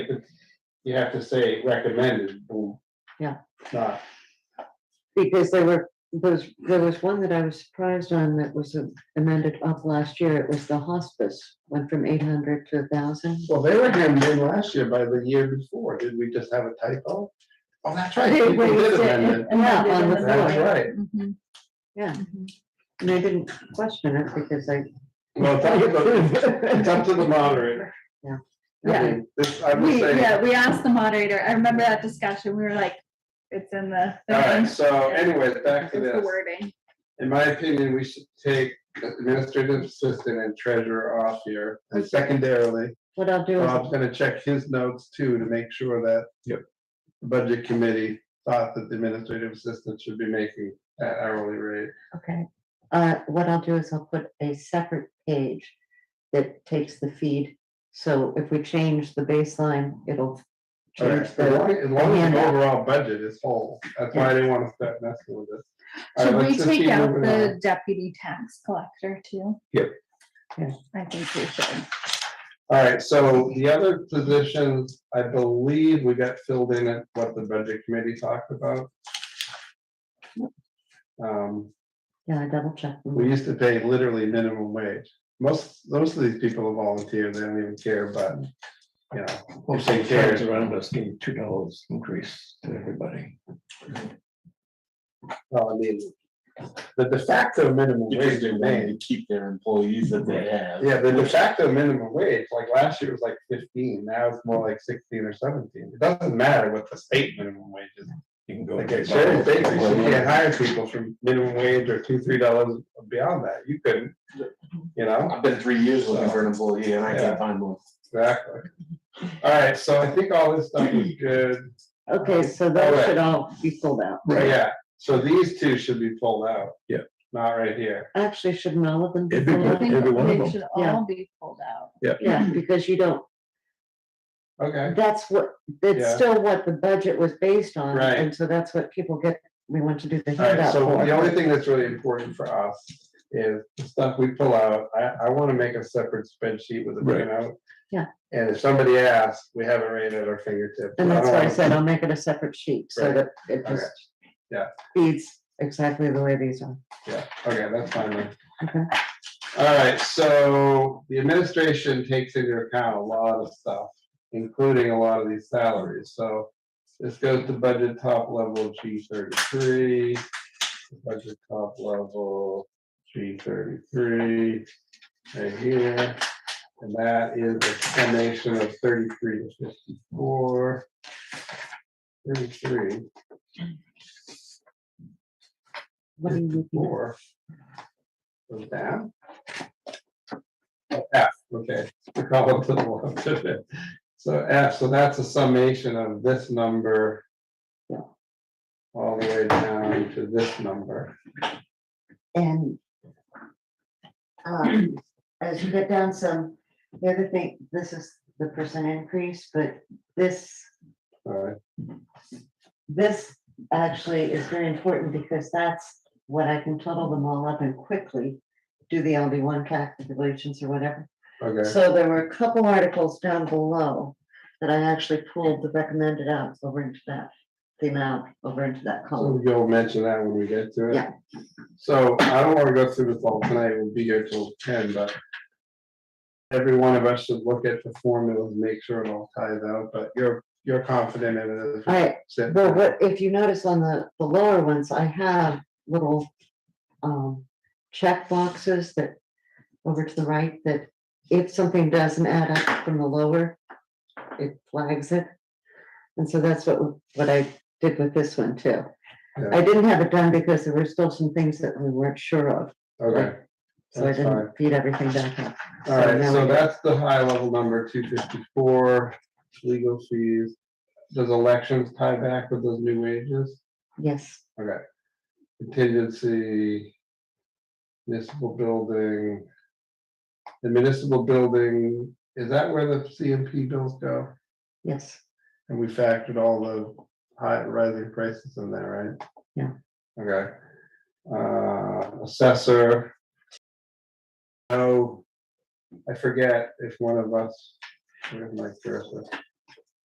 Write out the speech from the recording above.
You have to say recommended, Uh, boom. Yeah. Not, Because there were, there was, there was one that I was surprised on that was amended up last year. It was the hospice, went from eight hundred to thousand. well, they were hammered in last year by the year before. Did we just have a typo? Oh, that's right. They- people they did said- amend it. Yeah, on the That's floor, right. Mhm, yeah. mhm. And I didn't question it because I, Well, it's up to the- it's up to the moderator. Yeah. I mean, This, I'm just We, saying. yeah, we asked the moderator, I remember that discussion, we were like, it's in the. All right, thing, so anyways, back it's to the this. wording. In my opinion, we should take administrative assistant and treasurer off here. And secondarily, what I'll do is, Bob's gonna check his notes too to make sure that. Yep. the Budget committee thought that the administrative assistant should be making that hourly rate. okay, uh, what I'll do is I'll put a separate page that takes the feed. So if we change the baseline, it'll All right, change As long the, as long as the Yeah. overall budget is whole, that's why I didn't wanna start messing with this. All right, Should let's we just take keep out moving the deputy tax collector too? Yep. Yeah. I think we should. on. All right, so the other positions, I believe we got filled in at what the budget committee talked about. Um, yeah, I double checked. We used to pay literally minimum wage. Most, most of these people are volunteers, they don't even care, but, you know, Most of the towns around us gave two dollars increase to everybody. well, I mean, the de facto minimum Because wage they wanted remained. to keep their employees that they have. Yeah, the de facto minimum wage, like last year was like fifteen, now it's more like sixteen or seventeen. It doesn't matter what the state minimum wage is. You can go. Like at Sharon State, you can't hire people from minimum wage or two, three dollars beyond that. You couldn't, you know? I've been three years looking for an employee and I Yeah. can't find one. Exactly. All right, so I think all this stuff is good. Okay, so that Alright. should all be pulled out. Right, Right. yeah, so these two should be pulled out. Yeah. Not right here. Actually, shouldn't all of them be It'd be pulled I out? think Every one of they them. should Yeah. all be pulled out. Yeah, because you don't, Okay, that's what, Yeah. that's still what the budget was based on. Right. And so that's what people get, we want to do the all right, handout so the only for. thing that's really important for us is the stuff we pull out. I, I wanna make a separate spreadsheet with a Right. printout. Yeah. And if somebody asks, we have it right at our fingertips. And I that's don't why I wanna- said I'll make it a separate sheet so Right. that it Okay. just Yeah. feeds exactly the way these are. Yeah, okay, that's fine then. Okay. All right, so the administration takes into account a lot of stuff, including a lot of these salaries, so. This goes to budget top level G thirty-three, budget top level G thirty-three, right here. And that is a summation of thirty-three to fifty-four. Thirty-three, What are you looking at? four. Goes down. Oh, F, okay, I call it to the left of it. So F, so that's a summation of this number. Yeah. All the way down to this number. And um, as you get down some, the other thing, this is the percent increase, but this Alright, this actually is very important because that's what I can total them all up and quickly do the LD one calculations or whatever. okay, So there were a couple articles down below that I actually pulled the recommended out over into that, the amount over into that column. so you'll mention that when we get to it. Yeah. So I don't wanna go through this all tonight, we'll be here till ten, but. Every one of us should look at the formulas, make sure it all ties out, but you're, you're confident in it. as we I, sit well, down. what, if you notice on the, the lower ones, I have little, um, check boxes that over to the right that if something doesn't add up from the lower, it flags it. And so that's what, what I did with this one too. Yeah. I didn't have it done because there were still some things that we weren't sure of, Okay, so I That's didn't feed everything back up. all right, now so we- that's the high level number, two fifty-four, legal fees. Does elections tie back with those new wages? Yes, Okay. Contingency. Municipal building. The municipal building, is that where the CMP bills go? yes, And we factored all the high rising prices in there, right? Yeah. Okay. Uh, assessor. Oh, I forget if one of us, where's my cursor?